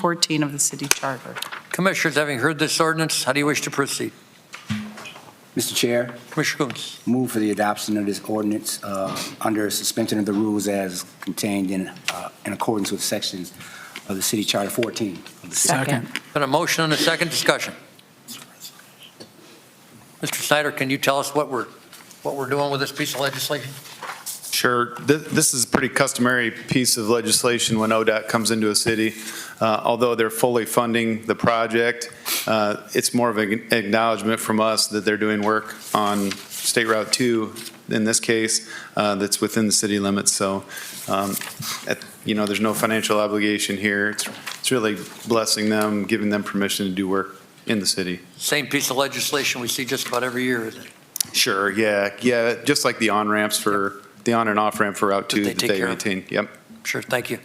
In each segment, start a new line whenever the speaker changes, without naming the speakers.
14 of the city charter.
Commissioners, having heard this ordinance, how do you wish to proceed?
Mr. Chair,
Commissioner Coons,
move for the adoption of this ordinance uh, under suspension of the rules as contained in, uh, in accordance with sections of the City Charter 14. of the city.
been a motion and a second discussion. Mr. Snyder, can you tell us what we're, what we're doing with this piece of legislation?
Sure. Th- This is a pretty customary piece of legislation when ODOT comes into a city. Uh, Although they're fully funding the project, uh, it's more of an acknowledgement from us that they're doing work on State Route 2, in this case, uh, that's within the city limits. So, um, at- you know, there's no financial obligation here. It's it's really blessing them, giving them permission to do work in the city.
Same piece of legislation we see just about every year, is it?
Sure, yeah, yeah, just like the on-ramps for, the on and off-ramp for Route
That
2
they
that
take
they
care of.
maintain. Yep.
Sure, thank you.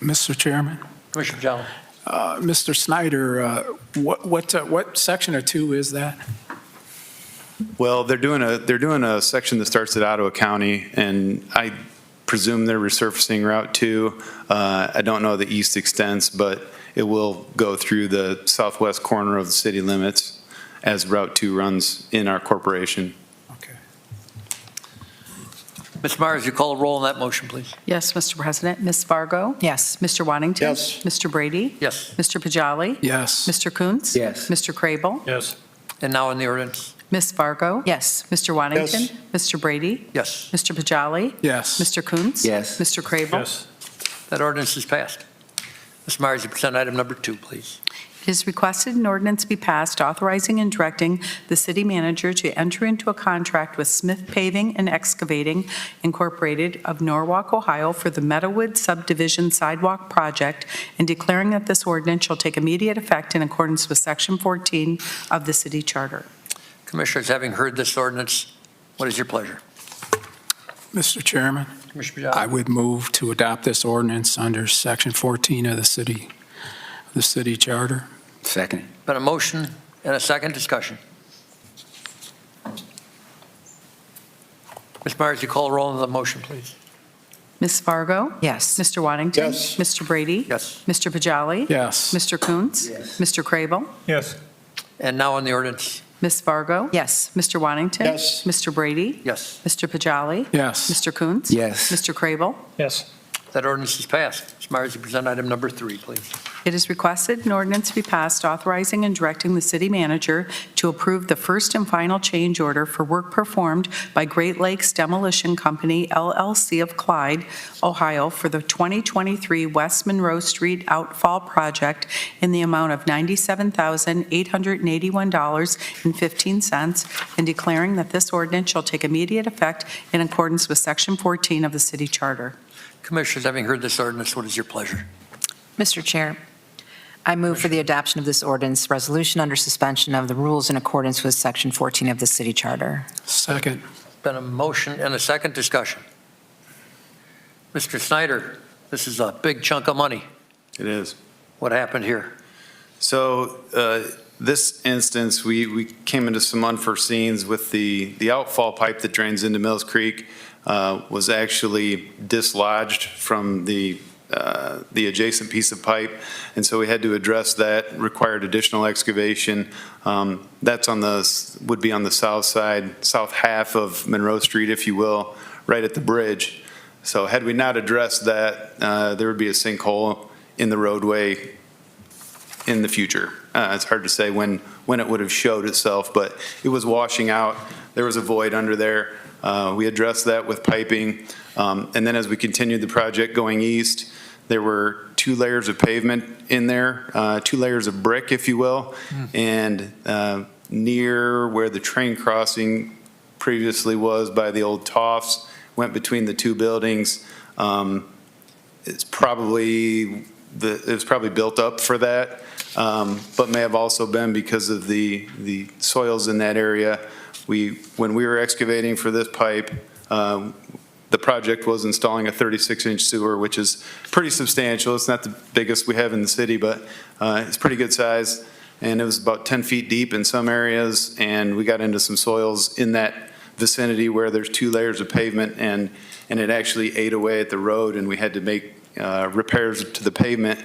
Mr. Chairman,
Commissioner Johnson,
uh, Mr. Snyder, uh, what, what, uh, what section or two is that?
Well, they're doing a, they're doing a section that starts at Ottawa County, and I presume they're resurfacing Route 2. Uh, I don't know the east extents, but it will go through the southwest corner of the city limits as Route 2 runs in our corporation.
Okay.
Ms. Myers, you call a roll on that motion, please.
Yes, Mr. President. Ms. Fargo? Yes. Mr. Waddington? Yes. Mr. Brady?
Yes,
Mr. Pajali?
Yes.
Mr. Coons?
Yes.
Mr. Crable?
and now on the ordinance,
Ms. Fargo? Yes. Mr. Waddington? Mr. Brady?
yes,
Mr. Pajali?
Yes.
Mr. Coons?
Yes.
Mr. Crable?
that ordinance is passed. Ms. Myers, you present item number two, please.
It is requested an ordinance be passed authorizing and directing the city manager to enter into a contract with Smith Paving and Excavating Incorporated of Norwalk, Ohio for the Meadowwood Subdivision Sidewalk Project and declaring that this ordinance shall take immediate effect in accordance with Section 14 of the city charter.
Commissioners, having heard this ordinance, what is your pleasure?
Mr. Chairman,
Commissioner
I would move to adopt this ordinance under Section 14 of the city, the city charter.
Second.
Been a motion and a second discussion. Ms. Myers, you call a roll on the motion, please.
Ms. Fargo? Yes. Mr. Waddington? Yes. Mr. Brady?
Yes.
Mr. Pajali?
Yes.
Mr. Coons?
Yes.
Mr. Crable?
And now on the ordinance.
Ms. Fargo? Yes. Mr. Waddington?
Yes.
Mr. Brady?
Yes,
Mr. Pajali?
Yes.
Mr. Coons?
Yes.
Mr. Crable?
Yes.
that ordinance is passed. Ms. Myers, you present item number three, please.
It is requested an ordinance be passed authorizing and directing the city manager to approve the first and final change order for work performed by Great Lakes Demolition Company LLC of Clyde, Ohio, for the 2023 West Monroe Street Outfall Project in the amount of $97,881.15 and declaring that this ordinance shall take immediate effect in accordance with Section 14 of the city charter.
Commissioners, having heard this ordinance, what is your pleasure?
Mr. Chair, I move for the adoption of this ordinance resolution under suspension of the rules in accordance with Section 14 of the City Charter.
Second.
Been a motion and a second discussion. Mr. Snyder, this is a big chunk of money.
It is.
What happened here?
So uh, this instance, we, we came into some unforeseens with the, the outfall pipe that drains into Mills Creek uh, was actually dislodged from the, uh, the adjacent piece of pipe. And so we had to address that, required additional excavation. Um, That's on the, s- would be on the south side, south half of Monroe Street, if you will, right at the bridge. So had we not addressed that, uh, there would be a sinkhole in the roadway in the future. Uh, It's hard to say when, when it would have showed itself, but it was washing out. There was a void under there. Uh, We addressed that with piping. Um, And then as we continued the project going east, there were two layers of pavement in there, uh, two layers of brick, if you will. And uh, near where the train crossing previously was by the old Toffs, went between the two buildings. Um, It's probably, the it was probably built up for that um, but may have also been because of the, the soils in that area. We, when we were excavating for this pipe, um, the project was installing a 36-inch sewer, which is pretty substantial. It's not the biggest we have in the city, but uh, it's pretty good size, and it was about 10 feet deep in some areas, and we got into some soils in that vicinity where there's two layers of pavement, and, and it actually ate away at the road, and we had to make uh, repairs to the pavement